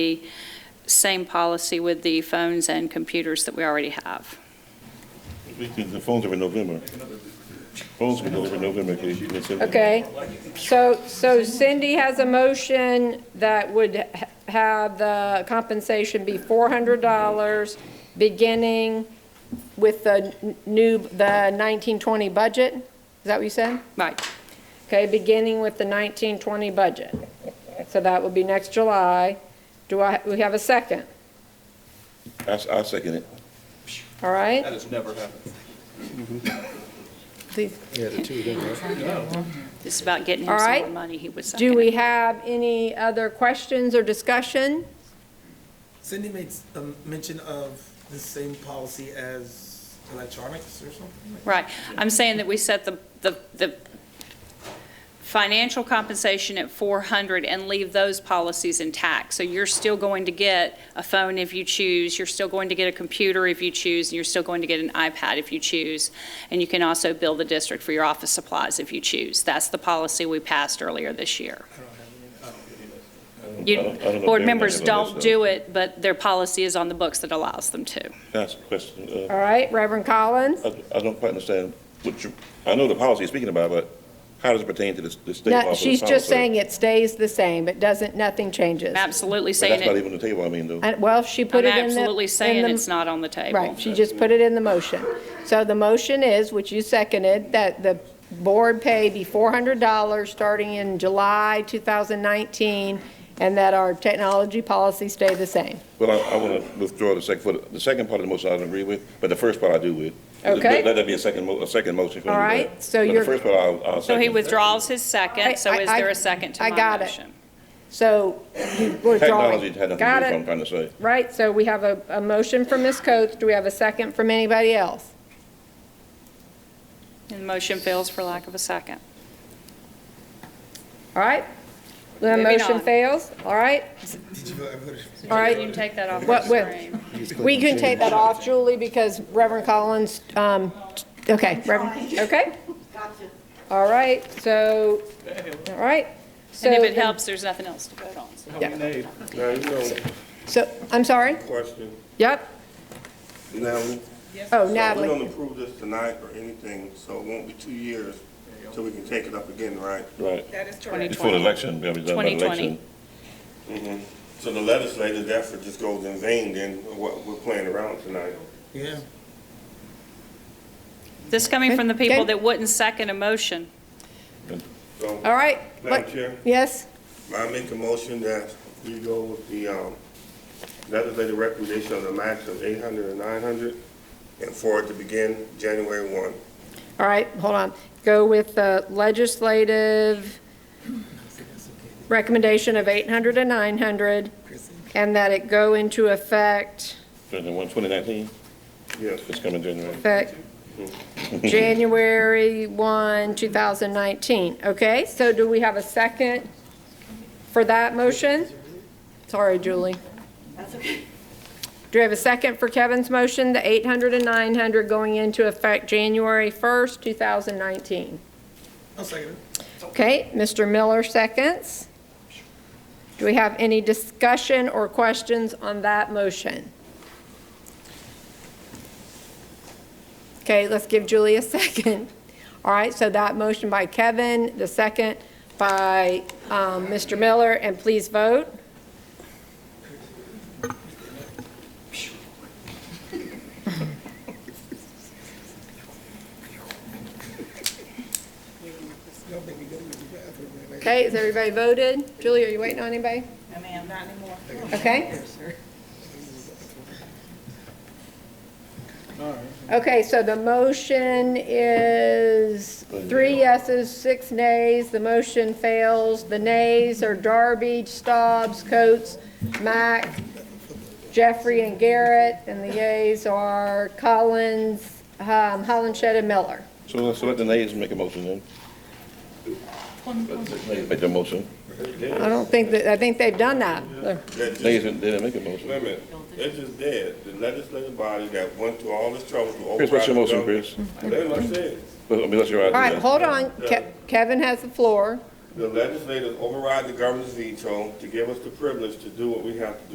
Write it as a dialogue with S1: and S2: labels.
S1: same policy with the phones and computers that we already have.
S2: We can- The phones are in November. Phones were delivered in November. okay, you can send them.
S3: Okay, so, so Cindy has a motion that would ha- have the compensation be $400, beginning with the n- new, the 1920 budget? Is that what you said?
S1: Right.
S3: Okay, beginning with the 1920 budget. So that would be next July. Do I, we have a second,
S2: I, s- I second it.
S3: all right?
S4: has never happened.
S1: It's about getting him
S3: All
S1: some
S3: right.
S1: more money, he was
S3: Do
S1: second.
S3: we have any other questions or discussion?
S5: Cindy made s- um, mention of the same policy as electronics or something? like-
S1: Right. I'm saying that we set the, the, the financial compensation at 400 and leave those policies intact. So you're still going to get a phone if you choose, you're still going to get a computer if you choose, and you're still going to get an iPad if you choose. And you can also bill the district for your office supplies if you choose. That's the policy we passed earlier this year.
S5: I don't have any, I don't-
S2: I
S1: You,
S2: don't- I don't know if
S1: board
S2: everybody
S1: members
S2: knows
S1: don't
S2: that.
S1: do it, but their policy is on the books that allows them to.
S2: Can I ask a question? Uh,
S3: All right, Reverend Collins?
S2: I, I don't quite understand what you, I know the policy you're speaking about, but how does it pertain to the, s- the state law?
S3: No,
S2: for the
S3: she's just
S2: policy?
S3: saying it stays the same, it doesn't, nothing changes.
S1: Absolutely
S2: But
S1: saying
S2: that's not
S1: it,
S2: even the table, I mean, though.
S3: And, well, she put
S1: I'm
S3: it in the.
S1: absolutely
S3: in
S1: saying
S3: the-
S1: it's not on the table.
S3: Right, she just put it in the motion. So the motion is, which you seconded, that the board pay be $400 starting in July 2019, and that our technology policy stay the same.
S2: Well, I, I want to withdraw the second, for the, the second part of the motion I don't agree with, but the first part I do with.
S3: Okay.
S2: Let that be a second, mo- a second motion. for me,
S3: All
S2: but-
S3: right, so
S2: but
S3: you're-
S2: The first part I'll, I'll
S1: So
S2: second.
S1: he withdraws his
S3: I-
S1: second, so is
S3: I-
S1: there a second to
S3: I
S1: my
S3: got it.
S1: motion?
S3: So you- we're
S2: Technology had nothing
S3: drawing.
S2: to do with
S3: Got
S2: what I'm
S3: it?
S2: trying to say.
S3: Right, so we have a, a motion from Ms. Coates. Do we have a second from anybody else?
S1: And the motion fails for lack of a second.
S3: All right? The
S1: Moving
S3: motion
S1: on.
S3: fails, all right?
S5: Did you vote? I voted.
S3: All right.
S1: You can take that off the
S3: What- what-
S1: screen.
S3: We can take that off, Julie, because Reverend Collins, um, okay, Reverend, okay? All right, so, all right. So
S1: And if it
S3: the-
S1: helps, there's nothing else to vote on. so-
S6: Now, you know,
S3: So, I'm sorry?
S6: question,
S3: Yep.
S6: now, so
S3: Oh,
S6: we don't
S3: Natalie,
S6: approve this tonight or anything, so it won't be two years till we can take it up again, right?
S2: Right.
S7: That is correct.
S2: Before the
S1: 2020.
S2: election, we have done by the
S1: 2020.
S2: election.
S6: So the legislative effort just goes in vain then, what we're playing around tonight.
S5: Yeah.
S1: This coming from the people
S3: Okay.
S1: that wouldn't second a motion.
S3: all
S6: So,
S3: right.
S6: Madam
S3: What-
S6: Chair,
S3: Yes,
S6: I make a motion that we go with the, um, legislative recommendation of the max of eight hundred and nine hundred and for it to begin January one.
S3: all right, hold on. Go with the legislative recommendation of 800 to 900, and that it go into effect,
S2: Twenty one, 2019,
S6: Yes.
S2: it's coming January.
S3: effect January 1, 2019. Okay, so do we have a second for that motion? Sorry, Julie. Do we have a second for Kevin's motion, the 800 and 900 going into effect January 1st, 2019?
S5: I'll second it.
S3: Okay, Mr. Miller seconds. Do we have any discussion or questions on that motion? Okay, let's give Julie a second. All right, so that motion by Kevin, the second by um, Mr. Miller, and please vote.
S5: Y'all make me go to the bathroom. right?
S3: Okay, is everybody voted? Julie, are you waiting on anybody?
S7: I mean, not anymore.
S3: Okay.
S7: sir.
S3: Okay, so the motion is three yeses, six nays. The motion fails. The nays are Darby, Staubs, Coates, Mack, Jeffrey, and Garrett, and the yeas are Collins, um, Hollenshed, and Miller.
S2: So let's let the nays make a motion then. Let the nays Make their motion.
S3: I don't think that, I think they've done that.
S6: That just-
S2: Nays didn't didn't make a motion.
S6: Wait a minute, it's just dead, the legislative body that went through all this trouble to override.
S2: Chris, what's your
S6: the
S2: motion,
S6: government-
S2: Chris?
S6: That's what I said,
S2: Let- I mean, let's hear
S3: All right,
S2: do that.
S3: hold on. Ke- Kevin has the floor.
S6: the legislators override the governor's veto to give us the privilege to do what we have to do.